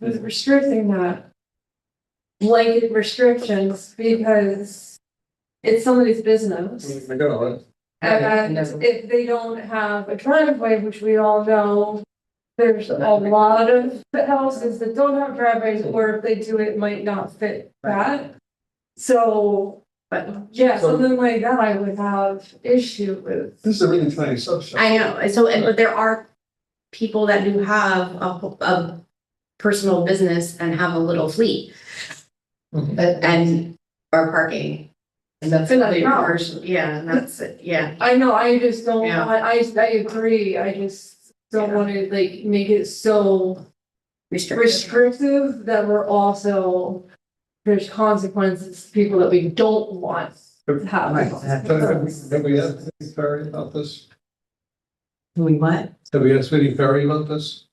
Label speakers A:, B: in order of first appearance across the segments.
A: was restricting that. Blanket restrictions because it's somebody's
B: Mm-hmm.
A: business.
C: I got all that.
A: And if they don't have a driveway, which we all know, there's a lot of houses that don't have driveways, or if they do, it might not fit that. So, but yeah, something like that I would have issue with.
C: This is a really tiny subset.
B: I know, so, and, but there are people that do have a, wh- a personal business and have a little fleet
C: Mhm.
B: but- and are parking. And that's
A: And that's
B: another
A: wrong.
B: person, yeah, and that's, it, yeah,
A: I know, I just don't,
B: Yeah.
A: I, I, I agree, I just don't
B: Yeah.
A: wanna like make it so
B: restricted.
A: restrictive that we're also. There's consequences, to people that we don't want to have.
C: Have we asked Vinnie Perry about this?
B: We what?
C: Have we asked Vinnie Perry about this?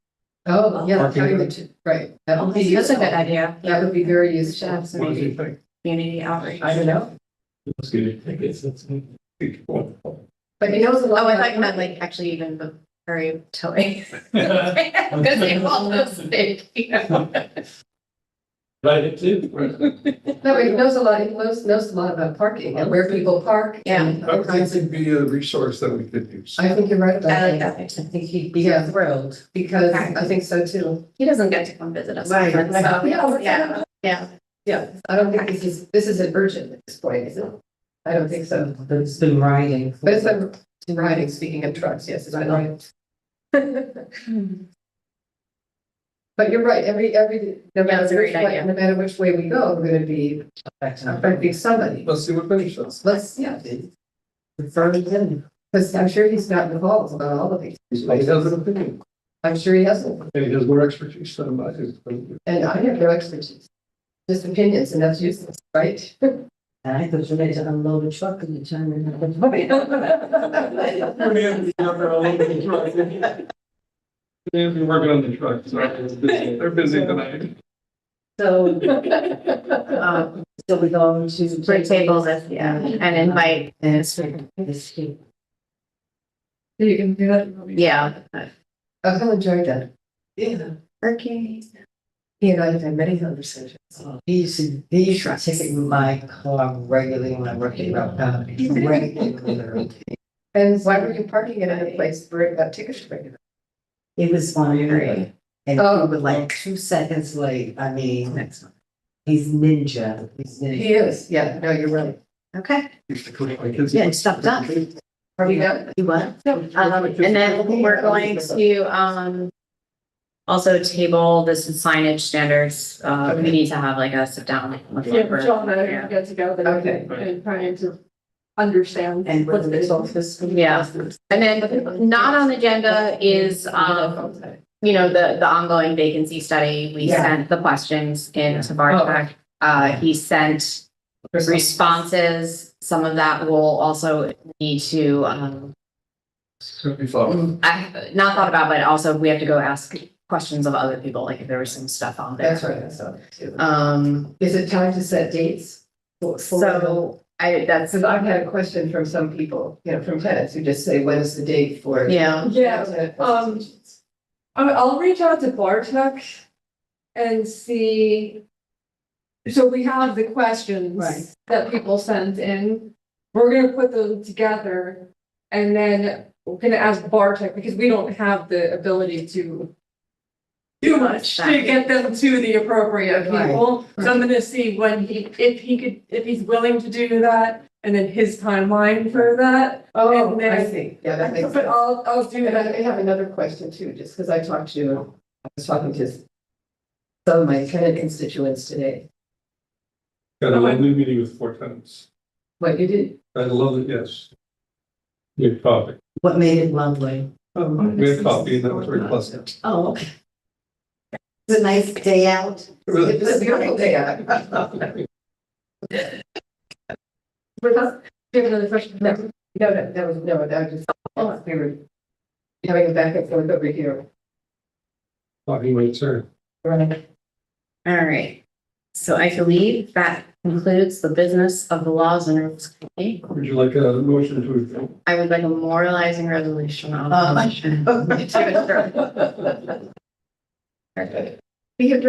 D: Oh, yeah,
C: Parking
D: having
C: lot.
D: the two, right. That would be
B: That's a good
D: useful.
B: idea,
D: That
B: yeah,
D: would be very
B: Yeah.
D: useful.
C: What do you think?
B: community outreach.
D: I don't know,
C: That's good. I guess that's.
D: but he knows a lot.
B: Oh, I
D: about
B: thought you meant like actually even the very towing. Because they all those things.
E: Right, it did.
D: No, he knows a lot, he knows, knows a lot about parking and where people park. and
C: I would think it'd be a resource that we could use.
D: I think you're right about
B: I like
D: that.
B: that.
F: I
B: picture.
F: think he'd be
D: Yeah.
F: thrilled.
D: Because
B: Okay.
D: I think so too.
B: He doesn't get to come visit us.
F: Right.
B: often, so,
D: Yeah.
B: Yeah, yeah.
D: Yeah, I don't think this is, this isn't urgent at this point, is it? I don't think so.
F: It's been riding. for-
D: But it's been riding, speaking of trucks, yes, it's been riding. But you're right, every, every, no
B: Yeah,
D: matter
B: that's a
D: which
B: great
D: way,
B: idea.
D: no matter which way we go, we're gonna be affecting somebody.
C: Let's see what Vinnie says.
D: Let's, yeah,
F: Referring him.
D: because I'm sure he's not involved about all of these.
C: He has an opinion,
D: I'm sure he hasn't,
C: and he has more expertise than I do.
D: and I have no expertise. Just opinions, and that's useless, right?
F: And I thought you ready to unload a truck and you turn around.
C: They've been working on the truck, so they're busy tonight.
F: So. um, So we go to.
B: Three tables, if- yeah, and invite,
F: And it's like, this kid.
A: You can do that.
B: yeah.
D: I've enjoyed that.
F: Yeah.
B: Okay.
D: He and I have had many conversations.
F: Oh, He used to, he used to ticket my car regularly when I worked in Rock County. Regularly.
D: And why were you parking it at a place where it got tickets regular?
F: It was fun,
B: Great.
F: right? And
D: Oh.
F: he was like two seconds late, I mean, he's ninja, he's ninja.
D: He is, yeah, no, you're right.
B: Okay,
C: Used to clean my kids'
F: Yeah, stop that.
D: Are we done?
F: You what?
B: um, and then we're going to, um. Also table this is signage standards, uh, we need to have like a sit down. with
A: Yeah,
B: Robert.
A: John and
B: Yeah.
A: I got together
D: Okay.
A: and trying to understand.
F: And
A: what
F: with
A: this
F: this
A: is.
F: office.
B: Yeah. And then not on the agenda is, um, you know, the, the ongoing vacancy study, we
F: Yeah.
B: sent the questions in to Bartek. Uh, he sent responses, some of that will also need to, um, I, have not thought about, but also we have to go ask questions of other people, like if there was some stuff on there.
D: That's right, I saw that too.
B: Um,
D: Is it time to set dates? for- for-
B: so I, that's,
D: Because I've had a question from some people, you know, from tenants who just say, when is the date for?
B: yeah,
A: Yeah, um, I'll, Um, I'll reach out to Bartek and see. So we have the
F: Right.
A: questions that people sent in. We're gonna put them together and then we're gonna ask Bartek because we don't have the ability to do much to get them to the appropriate
F: Right.
A: people. So I'm gonna see when he, if he could, if he's willing to do that and then his timeline for that.
D: Oh,
A: and
D: I
A: then-
D: see, yeah, that makes
A: But
D: sense.
A: I'll, I'll do
D: And
A: that.
D: I have another question too, just because I talked to, I was talking to some of my tenant constituents today.
C: Got a lovely meeting with four tenants.
D: What you did,
C: I love it, yes. We had coffee.
F: What made it lovely?
C: Um, We had coffee and that was very pleasant.
F: Oh, okay. It's a nice day out.
C: It really-
D: it was a beautiful day out.
A: Wait, that's- do you have another question?
D: No, no, no, that was, no, that was just, oh, we were having a back and forth over here.
C: Talking with her.
D: Right.
B: all right. So I believe that concludes the business of the laws and rules committee.
C: Would you like a motion to adjourn?
B: I would like a moralizing resolution on.
D: Um,
B: the motion.
D: We have